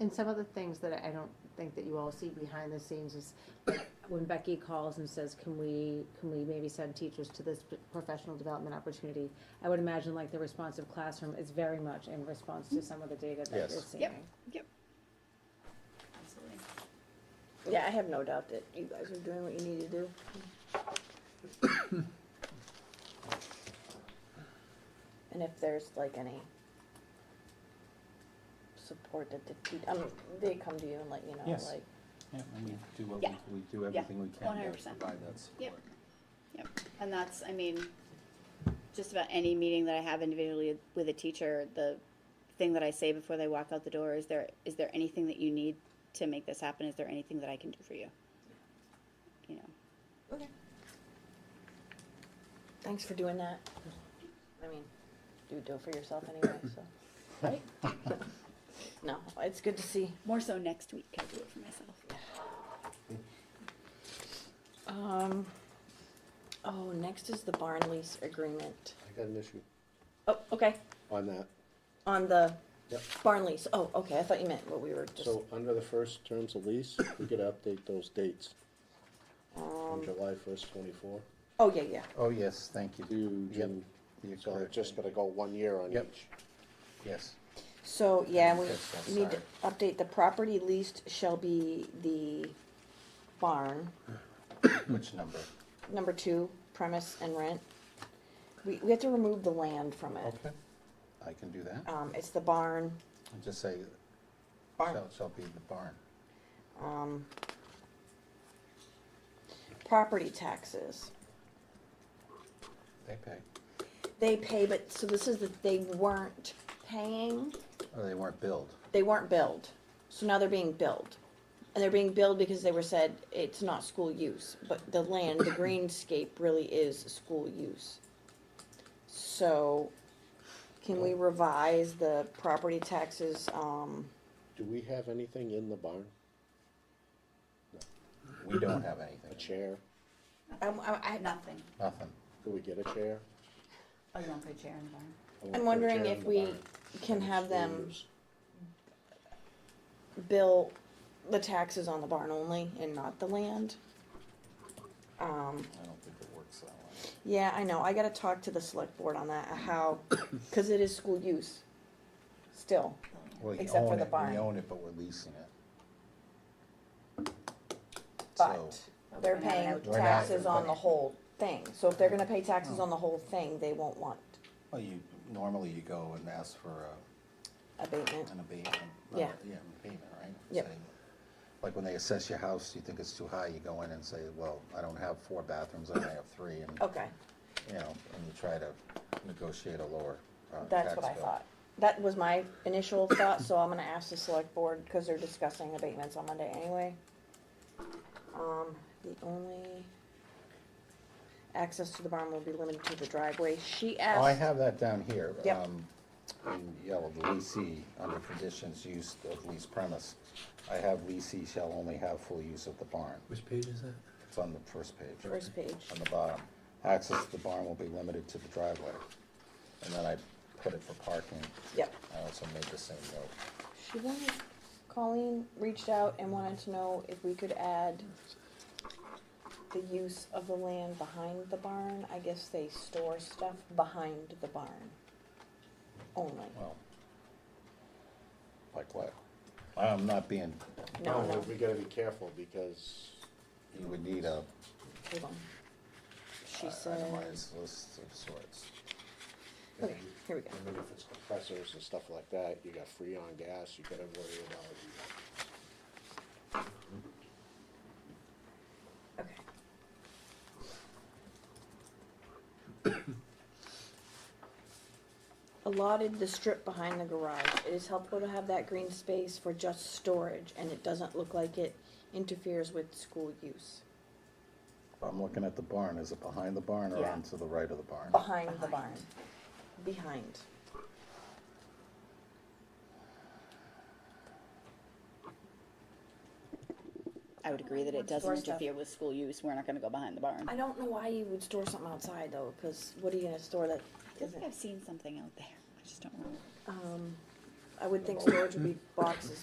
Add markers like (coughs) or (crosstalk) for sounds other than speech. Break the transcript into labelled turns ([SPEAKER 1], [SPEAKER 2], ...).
[SPEAKER 1] And some of the things that I don't think that you all see behind the scenes is like, when Becky calls and says, can we, can we maybe send teachers to this p- professional development opportunity? I would imagine like the responsive classroom is very much in response to some of the data that
[SPEAKER 2] Yes.
[SPEAKER 1] you're
[SPEAKER 2] Yep.
[SPEAKER 1] seeing.
[SPEAKER 3] Absolutely.
[SPEAKER 4] Yeah, I have no doubt that you guys are doing what you need to do. And if there's like any support that the, te- um, they come to you and let you know,
[SPEAKER 2] Yes.
[SPEAKER 4] like,
[SPEAKER 2] Yeah, and we do what
[SPEAKER 3] Yeah.
[SPEAKER 2] we, we do everything we can to
[SPEAKER 3] 100%.
[SPEAKER 2] provide that support.
[SPEAKER 3] Yep. Yep, and that's, I mean, just about any meeting that I have individually with a teacher, the thing that I say before they walk out the door is there, is there anything that you need to make this happen? Is there anything that I can do for you? You know,
[SPEAKER 4] thanks for doing that. I mean, you do it for yourself anyway, so. Right? (laughs) No, it's good to see.
[SPEAKER 3] more so next week, I do it for myself.
[SPEAKER 4] Um, oh, next is the barn lease agreement.
[SPEAKER 5] I got an issue
[SPEAKER 4] Oh, okay,
[SPEAKER 5] on that.
[SPEAKER 4] on the
[SPEAKER 5] Yep.
[SPEAKER 4] barn lease. Oh, okay, I thought you meant what we were just.
[SPEAKER 5] So under the first terms of lease, we could update those dates from July first twenty-four
[SPEAKER 4] um, Oh, yeah, yeah.
[SPEAKER 2] Oh, yes, thank you.
[SPEAKER 5] to
[SPEAKER 2] Yep.
[SPEAKER 5] June.
[SPEAKER 2] You're
[SPEAKER 5] So
[SPEAKER 2] correct.
[SPEAKER 5] it's just gonna go one year on
[SPEAKER 2] Yep.
[SPEAKER 5] each.
[SPEAKER 2] Yes.
[SPEAKER 4] So, yeah, we
[SPEAKER 2] Yes, I'm
[SPEAKER 4] need to
[SPEAKER 2] sorry.
[SPEAKER 4] update, the property leased shall be the barn,
[SPEAKER 2] (coughs) Which number?
[SPEAKER 4] number two, premise and rent. We, we have to remove the land from it.
[SPEAKER 2] Okay, I can do that.
[SPEAKER 4] Um, it's the barn,
[SPEAKER 2] And just say,
[SPEAKER 4] barn,
[SPEAKER 2] shall, shall be the barn.
[SPEAKER 4] um, property taxes.
[SPEAKER 2] They pay.
[SPEAKER 4] They pay, but, so this is that they weren't paying,
[SPEAKER 2] Oh, they weren't billed.
[SPEAKER 4] they weren't billed. So now they're being billed. And they're being billed because they were said it's not school use, but the land, the greenscape really is school use. So can we revise the property taxes, um,
[SPEAKER 5] Do we have anything in the barn?
[SPEAKER 2] We (coughs) don't have
[SPEAKER 5] A
[SPEAKER 2] anything,
[SPEAKER 5] chair?
[SPEAKER 4] I, I, I-
[SPEAKER 3] Nothing.
[SPEAKER 2] nothing.
[SPEAKER 5] Could we get a chair?
[SPEAKER 3] Oh, you want to put a chair in the barn?
[SPEAKER 5] I wanna put
[SPEAKER 4] I'm
[SPEAKER 5] a
[SPEAKER 4] wondering
[SPEAKER 5] chair
[SPEAKER 4] if
[SPEAKER 5] in the
[SPEAKER 4] we
[SPEAKER 5] barn.
[SPEAKER 4] can have them
[SPEAKER 5] Excuse.
[SPEAKER 4] bill the taxes on the barn only and not the land? Um,
[SPEAKER 2] I don't think it works that way.
[SPEAKER 4] yeah, I know, I gotta talk to the select board on that, how, (coughs) cause it is school use, still.
[SPEAKER 2] We
[SPEAKER 4] Except for
[SPEAKER 2] own
[SPEAKER 4] the
[SPEAKER 2] it-
[SPEAKER 4] barn.
[SPEAKER 2] We own it, but we're leasing it. So,
[SPEAKER 4] But they're paying
[SPEAKER 2] We're not-
[SPEAKER 4] taxes on the whole thing, so if they're gonna pay taxes on the whole thing, they won't want
[SPEAKER 2] Well, you, normally you go and ask for a,
[SPEAKER 4] abatement.
[SPEAKER 2] an abatement. not-
[SPEAKER 4] Yeah.
[SPEAKER 2] Yeah, an abatement, right?
[SPEAKER 4] Yep.
[SPEAKER 2] Say, Like when they assess your house, you think it's too high, you go in and say, well, I don't have four bathrooms, I only have three, and,
[SPEAKER 4] Okay,
[SPEAKER 2] you know, and you try to negotiate a lower, uh,
[SPEAKER 4] that's what
[SPEAKER 2] tax
[SPEAKER 4] I
[SPEAKER 2] bill.
[SPEAKER 4] thought. That was my initial thought, so I'm gonna ask the select board, cause they're discussing abatements on Monday anyway. Um, the only access to the barn will be limited to the driveway. She asked.
[SPEAKER 2] Oh, I have that down here.
[SPEAKER 4] Yep.
[SPEAKER 2] um, In yellow, the leasee, under conditions used of lease premise, I have leasee shall only have full use of the barn.
[SPEAKER 6] Which page is that?
[SPEAKER 2] It's on the first page.
[SPEAKER 4] First page.
[SPEAKER 2] On the bottom. Access to the barn will be limited to the driveway. And then I put it for parking.
[SPEAKER 4] Yep.
[SPEAKER 2] I also made the same note.
[SPEAKER 4] She wanted, Colleen reached out and wanted to know if we could add the use of the land behind the barn. I guess they store stuff behind the barn only.
[SPEAKER 2] Well, like what? I'm not being,
[SPEAKER 4] No, no,
[SPEAKER 5] Oh, We gotta be careful because
[SPEAKER 2] you would need a uh,
[SPEAKER 4] hold on. She said,
[SPEAKER 2] itemized list of sorts.
[SPEAKER 4] okay, here we go.
[SPEAKER 5] I mean, if it's compressors and stuff like that, you got freon gas, you gotta worry about.
[SPEAKER 4] Okay. Allotted the strip behind the garage. It is helpful to have that green space for just storage, and it doesn't look like it interferes with school use.
[SPEAKER 2] I'm looking at the barn. Is it behind the barn or
[SPEAKER 4] Yeah.
[SPEAKER 2] on to the right of the barn?
[SPEAKER 4] Behind the barn. Behind.
[SPEAKER 3] I would agree that it doesn't
[SPEAKER 4] Store stuff.
[SPEAKER 3] interfere with school use, we're not gonna go behind the barn.
[SPEAKER 4] I don't know why you would store something outside, though, because what are you gonna store that
[SPEAKER 3] I feel like
[SPEAKER 4] isn't?
[SPEAKER 3] I've seen something out there, I just don't remember.
[SPEAKER 4] Um, I would think storage would be boxes,